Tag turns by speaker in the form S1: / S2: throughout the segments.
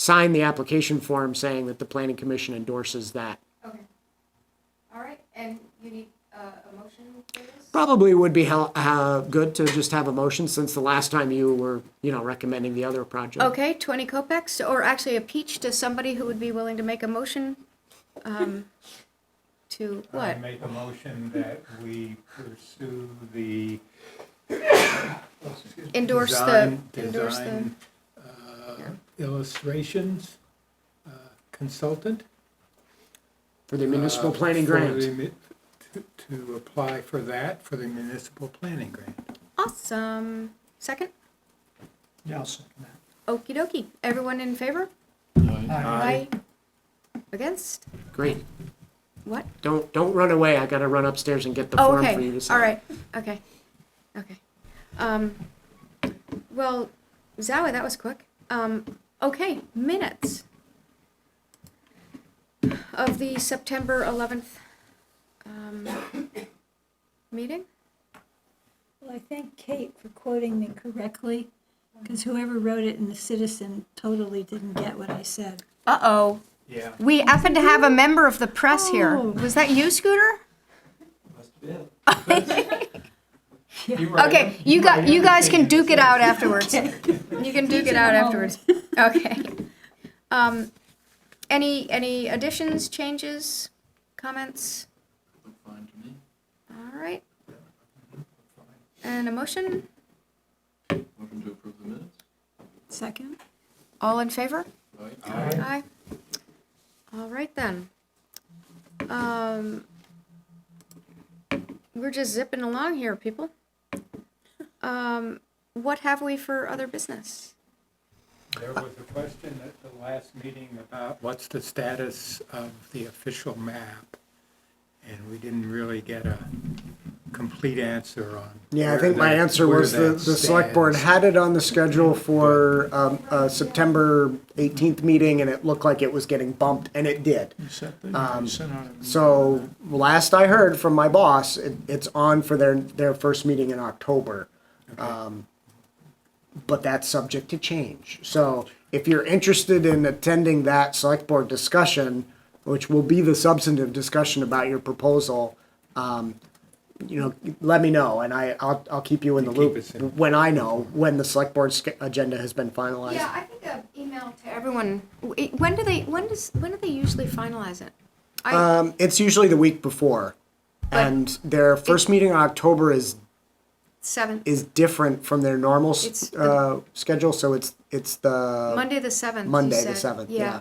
S1: sign the application form saying that the planning commission endorses that.
S2: Okay. All right, and you need uh, a motion for this?
S1: Probably would be hel- uh, good to just have a motion since the last time you were, you know, recommending the other project.
S2: Okay, 20 kopecks, or actually a peach to somebody who would be willing to make a motion um, to
S3: I
S2: what?
S3: make a motion that we pursue the.
S2: Endorse the,
S3: design-
S2: endorse the,
S3: design, uh, Illustrations uh, consultant.
S1: For the municipal
S3: uh,
S1: planning
S3: for
S1: grant.
S3: the mi- to- To apply for that, for the municipal planning grant.
S2: awesome. Second?
S3: Yeah, I'll second
S2: Okey dokey. Everyone in favor? Aye. Against?
S1: Great.
S2: What?
S1: Don't, don't run away. I gotta run upstairs and get the
S2: Oh,
S1: form for you
S2: okay,
S1: to sign.
S2: all right, okay, okay. Um, well, Zowie, that was quick. Um, okay, minutes of the September eleventh, um, meeting?
S4: Well, I thank Kate for quoting me correctly, because whoever wrote it in the Citizen totally didn't get what I said.
S2: Uh-oh,
S3: Yeah.
S2: we happen to have a member of the press
S4: here.
S2: Was that you, Scooter? Okay, you got, you guys can duke it out afterwards. You can duke it out afterwards. Okay. Um, any, any additions, changes, comments?
S5: Fine to me.
S2: All right. And a motion?
S5: Motion to approve the minutes?
S4: Second?
S2: All in favor?
S5: Aye.
S2: Aye. All right then. Um, we're just zipping along here, people. Um, what have we for other business?
S3: There was a question at the last meeting about what's the status of the official map? And we didn't really get a complete answer on.
S1: Yeah, I
S3: where
S1: think my
S3: that-
S1: answer
S3: where
S1: was the,
S3: that
S1: the select board
S3: stands.
S1: had it on the schedule for, um, uh, September eighteenth meeting and it looked like it was getting bumped and it did. Um, So last I heard from my boss, it, it's on for their, their first meeting in October. Um, But that's subject to change. So if you're interested in attending that select board discussion, which will be the substantive discussion about your proposal, um, you know, let me know and I, I'll, I'll keep you in the
S3: You keep
S1: loop
S3: us in-
S1: when I know, when the select board's sch- agenda has been finalized.
S2: Yeah, I think an email to everyone. W- When do they, when does, when do they usually finalize it? I,
S1: Um, it's usually the week before.
S2: But-
S1: And their first meeting in October is
S2: seventh,
S1: is different from their normal s-
S2: It's the-
S1: uh, schedule, so it's it's the
S2: Monday the seventh. you
S1: uh, Monday the
S2: said.
S1: seventh. Yeah.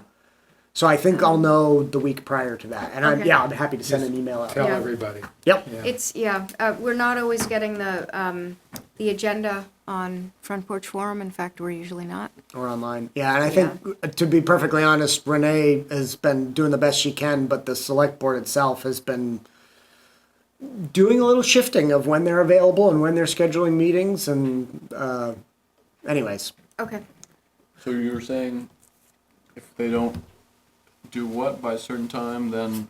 S1: So I think I'll know the week prior to that, and I'm
S2: Okay.
S1: yeah, I'm happy to send an email out.
S3: Tell
S2: Yeah.
S3: everybody.
S1: Yep.
S3: Yeah.
S2: It's, yeah, uh, we're not always getting the, um, the agenda on Front Porch Forum. In fact, we're usually not.
S1: Or online. Yeah, and I think uh, to be perfectly honest, Renee has been doing the best she can, but the select board itself has been doing a little shifting of when they're available and when they're scheduling meetings, and uh, anyways,
S2: Okay.
S5: So you were saying if they don't do what by a certain time, then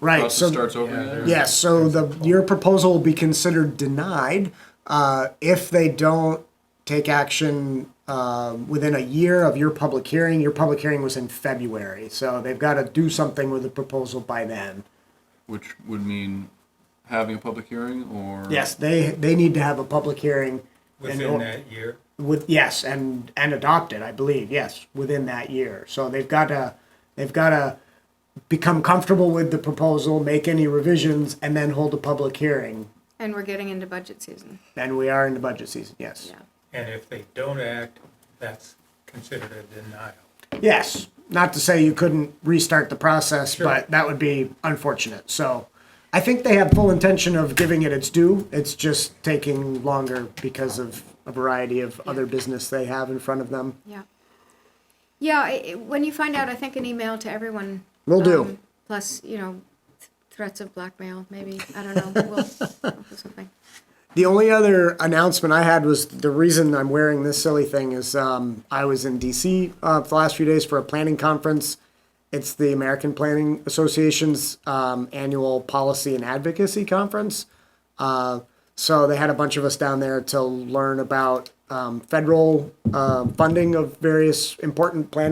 S1: right.
S5: process
S1: So
S5: starts over
S3: Yeah,
S5: again?
S3: there-
S1: Yes, so the, your proposal will be considered denied uh, if they don't take action uh, within a year of your public hearing. Your public hearing was in February, so they've got to do something with the proposal by then.
S5: Which would mean having a public hearing or?
S1: Yes, they, they need to have a public hearing. and
S3: Within that year.
S1: With, yes, and, and adopt it, I believe, yes, within that year. So they've got to, they've got to become comfortable with the proposal, make any revisions, and then hold a public hearing.
S2: And we're getting into budget season.
S1: And we are in the budget season, yes.
S2: Yeah.
S3: And if they don't act, that's considered a denial.
S1: Yes, not to say you couldn't restart the process,
S3: Sure.
S1: but that would be unfortunate. So I think they have full intention of giving it its due. It's just taking longer because of a variety of other business they have in front of them.
S2: Yeah. Yeah, I, I- when you find out, I think an email to everyone.
S1: Will do.
S2: um, Plus, you know, th- threats of blackmail, maybe. I don't know. We'll, we'll do something.
S1: The only other announcement I had was the reason I'm wearing this silly thing is um, I was in DC uh, the last few days for a planning conference. It's the American Planning Association's um, annual policy and advocacy conference. Uh, so they had a bunch of us down there to learn about um, federal uh, funding of various important planning.